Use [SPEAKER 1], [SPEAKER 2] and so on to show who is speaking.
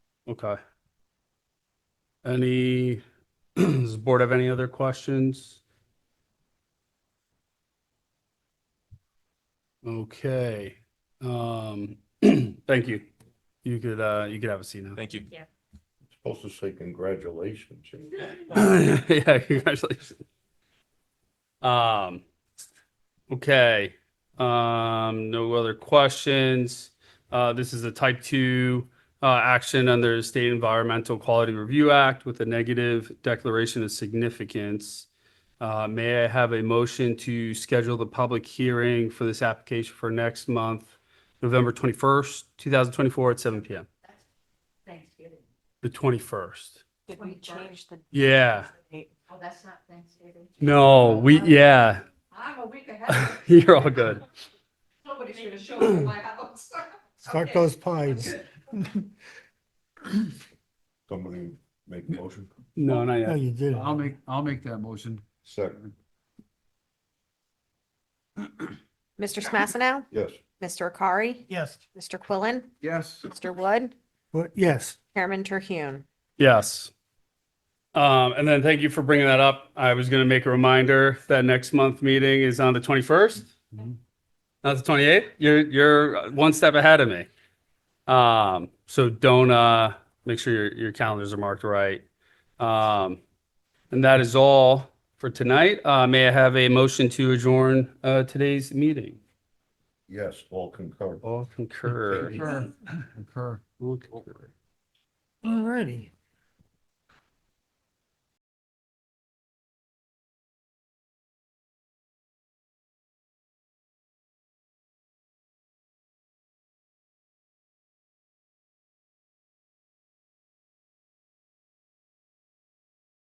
[SPEAKER 1] Okay. Any, does the board have any other questions? Okay, um, thank you. You could, uh, you could have a seat now.
[SPEAKER 2] Thank you.
[SPEAKER 3] Supposed to say congratulations.
[SPEAKER 1] Yeah, congratulations. Um, okay, um, no other questions. Uh, this is a type two, uh, action under the State Environmental Quality Review Act with a negative declaration of significance. Uh, may I have a motion to schedule the public hearing for this application for next month, November twenty-first, two thousand twenty-four at seven PM?
[SPEAKER 4] Thanksgiving.
[SPEAKER 1] The twenty-first.
[SPEAKER 5] Did we
[SPEAKER 4] 21st.
[SPEAKER 5] change the
[SPEAKER 1] Yeah,
[SPEAKER 5] date?
[SPEAKER 4] Oh, that's not Thanksgiving. Ah,
[SPEAKER 1] no, we, yeah,
[SPEAKER 4] I'm a week ahead.
[SPEAKER 1] You're all good.
[SPEAKER 4] Nobody's gonna show up at my house.
[SPEAKER 6] Start those pines.
[SPEAKER 3] Somebody make a motion.
[SPEAKER 1] No, not
[SPEAKER 6] No,
[SPEAKER 1] yet.
[SPEAKER 6] you did.
[SPEAKER 7] I'll make, I'll make that motion.
[SPEAKER 3] Second,
[SPEAKER 5] Mr. Smasino,
[SPEAKER 3] yes.
[SPEAKER 5] Mr. Akari,
[SPEAKER 6] Yes.
[SPEAKER 5] Mr. Quillen,
[SPEAKER 7] Yes.
[SPEAKER 5] Mr. Wood,
[SPEAKER 6] But yes,
[SPEAKER 5] Chairman Terhune.
[SPEAKER 1] Yes. Um, and then thank you for bringing that up. I was going to make a reminder that next month meeting is on the 21st.
[SPEAKER 7] Mhm.
[SPEAKER 1] Not the 28th. You're, you're one step ahead of me. Um, so don't, uh, make sure your, your calendars are marked right. Um, and that is all for tonight. Uh, may I have a motion to adjourn, uh, today's meeting?
[SPEAKER 3] Yes, all concur.
[SPEAKER 1] All concur.
[SPEAKER 7] Concur. Concur.
[SPEAKER 1] All concur.
[SPEAKER 6] alrighty.